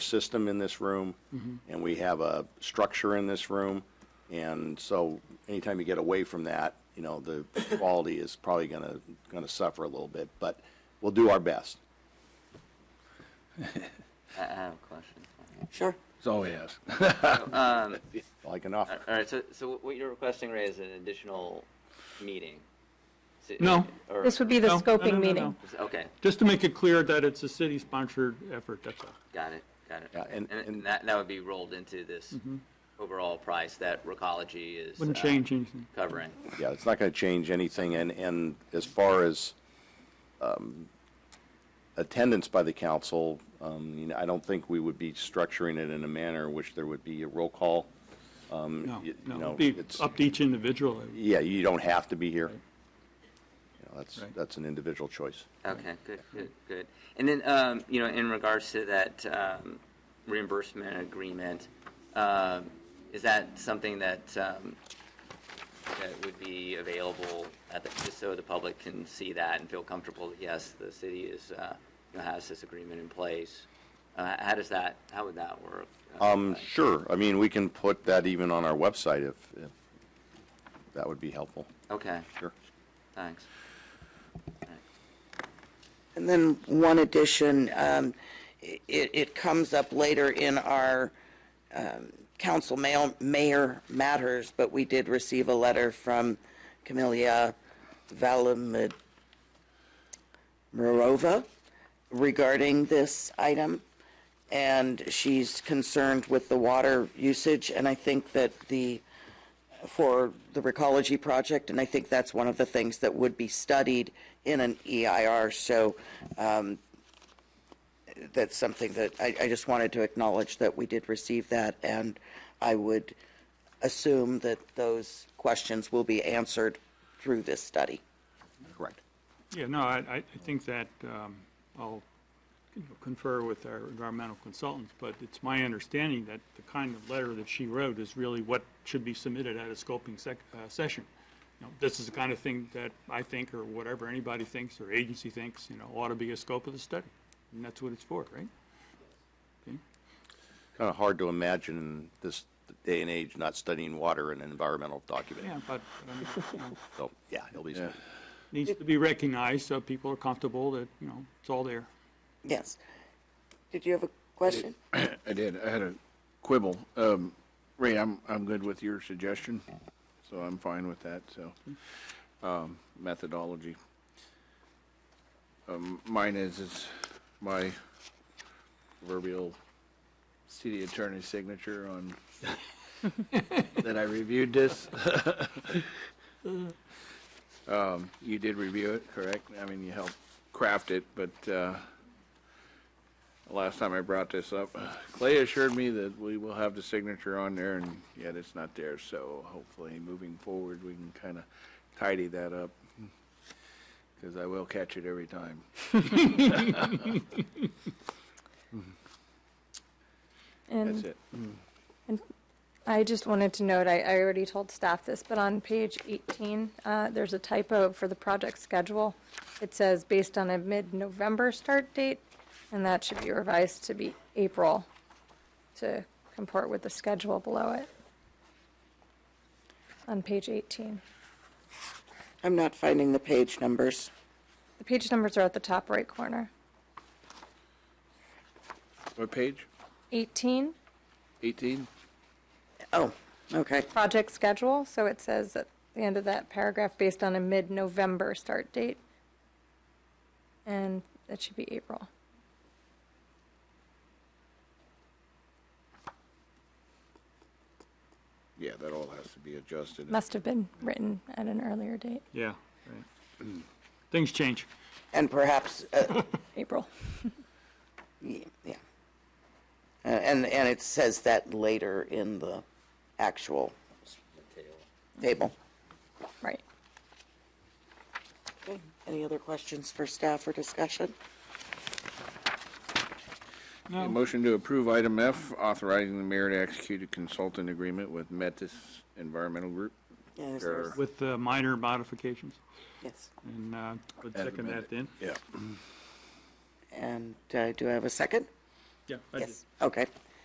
system in this room, and we have a structure in this room, and so anytime you get away from that, you know, the quality is probably gonna, gonna suffer a little bit, but we'll do our best. I I have a question. Sure. That's all he asked. All I can offer. All right, so, so what you're requesting, Ray, is an additional meeting? So- No. or- This would be the No, no, no, no, scoping no. meeting. Okay, Just to make it clear that it's a city-sponsored effort, that's all. got it, got it. Yeah, and- and- And that, that would be rolled into this overall price that Recology is. Mm-hmm. Wouldn't uh, change anything. Covering. Yeah, it's not going to change anything, and, and as far as um, attendance by the council, um, you know, I don't think we would be structuring it in a manner in which there would be a roll call. No, you no, know, it'd be it's- up to each individual. I would- Yeah, you don't have to be here. You know, That's, Right. that's an individual choice. Okay, good, good, good. And then, um, you know, in regards to that um, reimbursement agreement, um, is that something that, um, that would be available at the, just so the public can see that and feel comfortable that, yes, the city is, uh, you know, has this agreement in place? Uh, How does that, how would that work? Um, Sure, I mean, we can put that even on our website if, if that would be helpful, Okay, sure. thanks. And then one addition, um, i- it, it comes up later in our um, council mail- mayor matters, but we did receive a letter from Camelia Valamirova regarding this item, and she's concerned with the water usage, and I think that the, for the recology project, and I think that's one of the things that would be studied in an EIR, so um, that's something that, I, I just wanted to acknowledge that we did receive that, and I would assume that those questions will be answered through this study. Correct. Yeah, no, I, I I think that um, I'll you know, confer with our environmental consultants, but it's my understanding that the kind of letter that she wrote is really what should be submitted at a scoping sec, uh, session. You know, This is the kind of thing that I think, or whatever anybody thinks, or agency thinks, you know, ought to be a scope of the study. And that's what it's for, right? Kind of hard to imagine in this day and age not studying water in an environmental document, Yeah, but um, you know, so, yeah, it'll be. Yeah. needs to be recognized so people are comfortable that, you know, it's all there. Yes. Did you have a question? I did. I had a quibble. Um, Ray, I'm, I'm good with your suggestion, so I'm fine with that, so, um, methodology. Um, mine is, is my proverbial city attorney's signature on, that I reviewed this. Um, you did review it, correct? I mean, you helped craft it, but, uh, Last time I brought this up, uh, Clay assured me that we will have the signature on there, and yet it's not there, so hopefully, moving forward, we can kind of tidy that up, because I will catch it every time. That's And it. I just wanted to note, I, I already told staff this, but on page 18, uh, there's a typo for the project schedule. It says based on a mid-November start date, and that should be revised to be April to comport with the schedule below it. On page 18. I'm not finding the page numbers. The page numbers are at the top right corner. What page? 18, 18? Oh, okay. project schedule, so it says at the end of that paragraph, based on a mid-November start date. And that should be April. Yeah, that all has to be adjusted. Must have been written at an earlier date, Yeah. right. Things change. And perhaps, uh, April. yeah. yeah. Uh, And, and it says that later in the actual table. Right. Okay. Any other questions for staff or discussion? A Motion to approve item F, authorizing the mayor to execute a consultant agreement with Metis Environmental Group. Yeah, is there- Sure. With uh, minor modifications, Yes. and uh, would As second that amended. then. Yeah. And uh, do I have a second? Yeah, I did. Yes, okay.